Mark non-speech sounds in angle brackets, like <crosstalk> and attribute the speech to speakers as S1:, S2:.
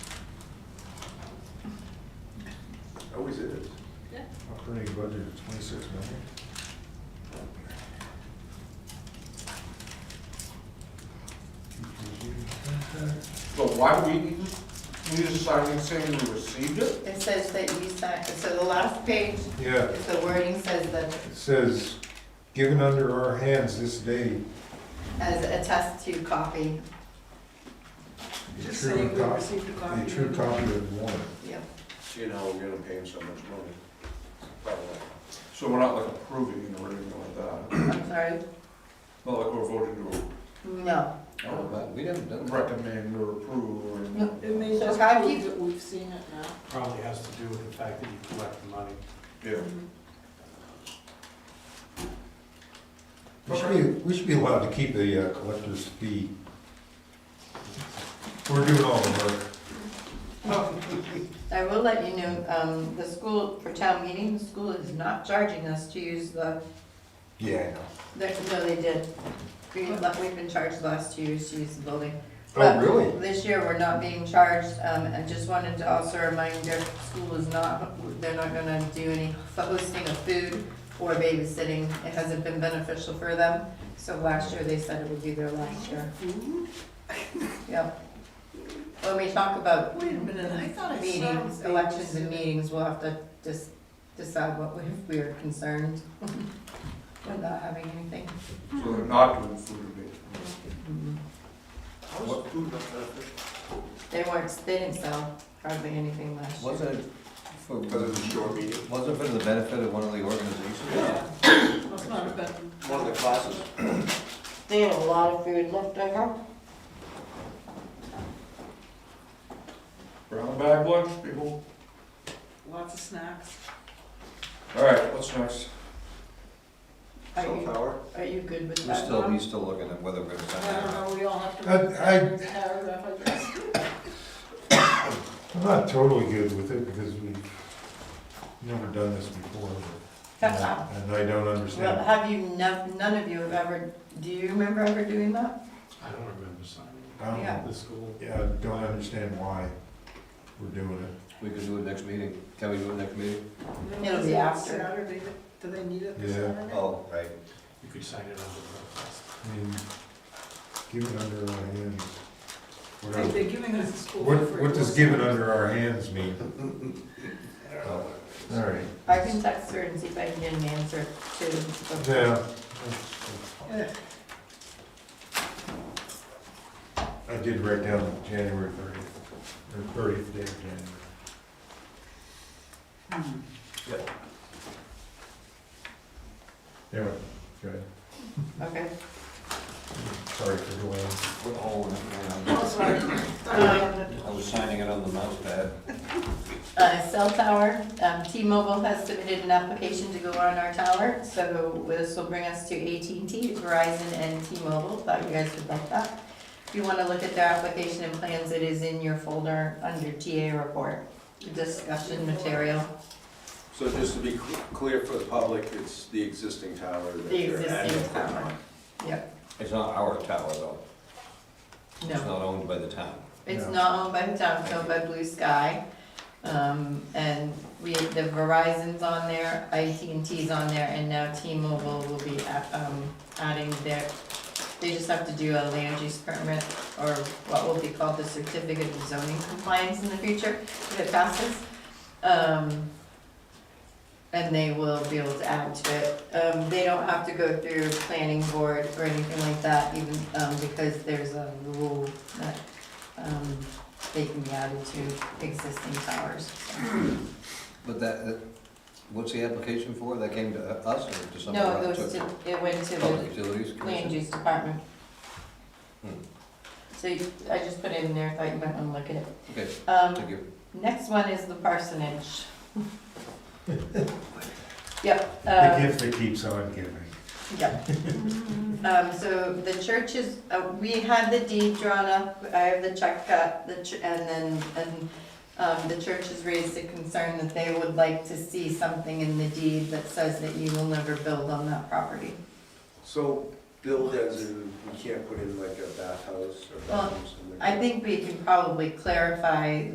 S1: always is.
S2: Yeah.
S3: Operating budget of twenty-six million.
S1: But why we, we just signed it saying we received it?
S4: It says that you signed, so the last page,
S3: Yeah,
S4: the wording says that
S3: it says, given under our hands this day.
S4: as attest to copy,
S3: the
S2: Just
S3: true
S2: saying we
S3: cop-
S2: received a
S3: A
S2: copy.
S3: true copy of the warrant.
S4: yep.
S1: Seeing how we're gonna pay him so much money, by the way. So we're not like approving or anything like that,
S4: I'm sorry,
S1: not like we're voting to
S4: no.
S5: Oh, but we haven't done that.
S1: recommend or approve or
S4: No,
S2: It
S1: anything.
S2: may
S4: So
S2: just
S4: how do
S2: prove
S4: you-
S2: that we've seen it now.
S6: Probably has to do with the fact that you collect the money.
S1: Yeah,
S3: We should be, we should be allowed to keep the uh, collector's fee. We're doing all the work.
S4: I will let you know, um, the school, for town meeting, the school is not charging us to use the,
S3: Yeah, I know.
S4: the- no, they did. We, we've been charged the last two years to use the building.
S3: Oh,
S4: But
S3: really?
S4: This year, we're not being charged, um, I just wanted to also remind their school is not, they're not gonna do any hosting of food or babysitting, it hasn't been beneficial for them, so last year, they said it would be their last year,
S2: Ooh,
S4: yep. When we talk about
S2: Wait a minute, I thought I saw
S4: meetings,
S2: babysitting.
S4: elections and meetings, we'll have to just decide what we, if we are concerned <laughs> without having anything.
S1: so they're not doing food abatement.
S2: Mm-hmm.
S5: How was-
S1: What food not beneficial?
S4: They weren't, they didn't sell hardly anything last year.
S5: Wasn't it for,
S1: Because it's a short meeting.
S5: wasn't it for the benefit of one of the organizations?
S2: Yeah. Must not have been.
S5: One of the classes?
S4: They had a lot of food left over.
S1: Brown bag lunch, people.
S2: Lots of snacks.
S1: All right, what's next?
S4: Are you,
S1: Power.
S4: are you good with
S5: We're
S4: that?
S5: still,
S4: Norm?
S5: he's still looking at whether we're gonna sign
S2: I
S5: that. or
S2: don't
S5: not.
S2: know, we all have to.
S3: I-
S2: read
S3: I-
S2: that Paragraph, I guess.
S3: I'm not totally good with it because we've never done this before. but- And I don't
S4: Well,
S3: understand.
S4: have you, nev- none of you have ever, do you remember ever doing that?
S6: I don't remember signing
S3: I don't,
S4: yeah.
S3: know.
S6: it. The school.
S3: yeah, I don't understand why we're doing it.
S5: We could do it next meeting. Can we do it next meeting?
S4: It'll be after.
S2: Saturday, do they need it this
S3: Yeah.
S2: Saturday?
S5: Oh, right.
S6: You could sign it under protest.
S3: I mean, give it under our hands. What
S2: They-
S3: are-
S2: They're giving us a school.
S3: What,
S2: for
S3: what
S2: it.
S3: does give it under our hands mean? <laughs> All right.
S4: I can text her and see if I can get an answer to.
S3: Yeah.
S2: Yeah.
S3: I did write down January thirtieth, or thirtieth day of January.
S4: Hmm.
S3: Yeah, good.
S4: Okay.
S3: Sorry for delaying.
S5: Oh, man,
S2: Oh, sorry.
S4: Um,
S5: I was signing it on the mouse pad.
S4: Uh, cell tower, um, T-Mobile has submitted an application to go on our tower, so this will bring us to AT&T, Verizon, and T-Mobile, thought you guys would like that. If you wanna look at their application and plans, it is in your folder under TA report, discussion material.
S7: So just to be cl- clear for the public, it's the existing tower that
S4: The
S7: they're adding.
S4: existing tower, yep,
S5: It's not our tower, though. It's
S4: no,
S5: not owned by the town.
S4: it's
S3: No.
S4: not owned by the town, it's owned by Blue Sky. Um, and we, the Verizon's on there, AT&T's on there, and now T-Mobile will be, a- um, adding their, they just have to do a land use permit, or what will be called the certificate of zoning compliance in the future, if it passes. Um, and they will be able to add to it. Um, they don't have to go through planning board or anything like that, even, um, because there's a rule that, um, they can be added to existing towers.
S5: But that, that- what's the application for? That came to us or to someone?
S4: No, it
S5: else?
S4: goes to, it went to
S5: Public
S4: the
S5: Utilities
S4: land
S5: Commission?
S4: use department.
S5: Hmm.
S4: So you- I just put it in there, thought you might wanna look at it.
S5: Okay,
S4: Um,
S5: thank you.
S4: next one is the
S5: <laughs>
S4: parsonage. Yep.
S3: The
S4: um,
S3: gift that keeps on giving.
S4: Yeah. Um, so the church is, uh, we had the deed drawn up, I have the check cut, the, ch- and then, and, um, the church has raised a concern that they would like to see something in the deed that says that you will never build on that property.
S7: So build as in, we can't put in like a bathhouse or
S4: Well,
S7: bathroom, something like
S4: I
S7: that?
S4: think we can probably clarify